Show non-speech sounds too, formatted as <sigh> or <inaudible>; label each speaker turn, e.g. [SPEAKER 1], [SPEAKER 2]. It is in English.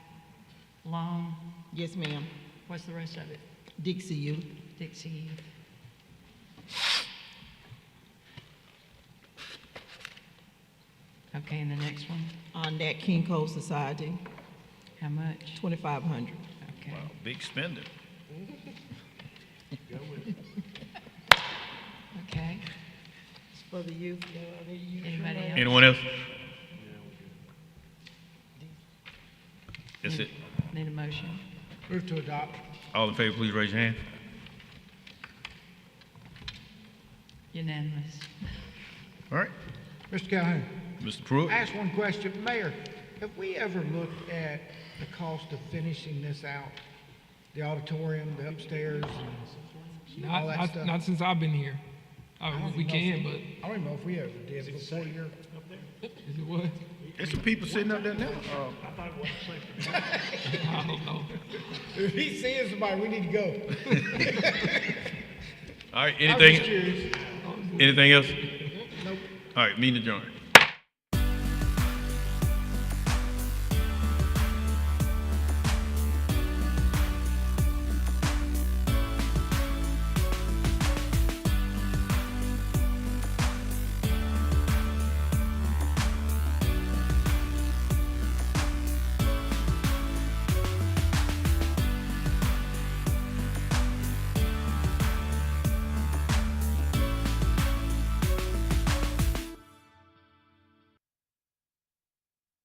[SPEAKER 1] Long,
[SPEAKER 2] Yes, ma'am.
[SPEAKER 1] what's the rest of it?
[SPEAKER 2] Dixie U.
[SPEAKER 1] Dixie. Okay, and the next one,
[SPEAKER 2] On that King Cole Society,
[SPEAKER 1] how much?
[SPEAKER 2] twenty-five hundred.
[SPEAKER 1] Okay,
[SPEAKER 3] Wow, big spender.
[SPEAKER 1] okay.
[SPEAKER 2] For the youth.
[SPEAKER 1] Anybody else?
[SPEAKER 3] Anyone else? That's it.
[SPEAKER 1] Need a motion?
[SPEAKER 4] Move to adopt.
[SPEAKER 3] All in favor, please raise your hand.
[SPEAKER 1] Unanimous.
[SPEAKER 3] All right.
[SPEAKER 4] Mr. Calhoun,
[SPEAKER 3] Mr. Pruitt?
[SPEAKER 4] ask one question. Mayor, have we ever looked at the cost of finishing this out? The auditorium, the upstairs, and all
[SPEAKER 5] Not,
[SPEAKER 4] that
[SPEAKER 5] not,
[SPEAKER 4] stuff?
[SPEAKER 5] not since I've been here. I,
[SPEAKER 4] don't even know
[SPEAKER 5] we
[SPEAKER 4] if
[SPEAKER 5] can,
[SPEAKER 4] we-
[SPEAKER 5] but
[SPEAKER 4] I don't even know if we ever did before your,
[SPEAKER 5] is it what?
[SPEAKER 3] There's some people sitting up there now.
[SPEAKER 5] <laughs> I don't know.
[SPEAKER 4] <laughs> if he sees somebody, we need to go.
[SPEAKER 3] All right,
[SPEAKER 4] I was just
[SPEAKER 3] anything,
[SPEAKER 4] curious.
[SPEAKER 3] anything else?
[SPEAKER 4] Nope.
[SPEAKER 3] All right, meeting adjourned.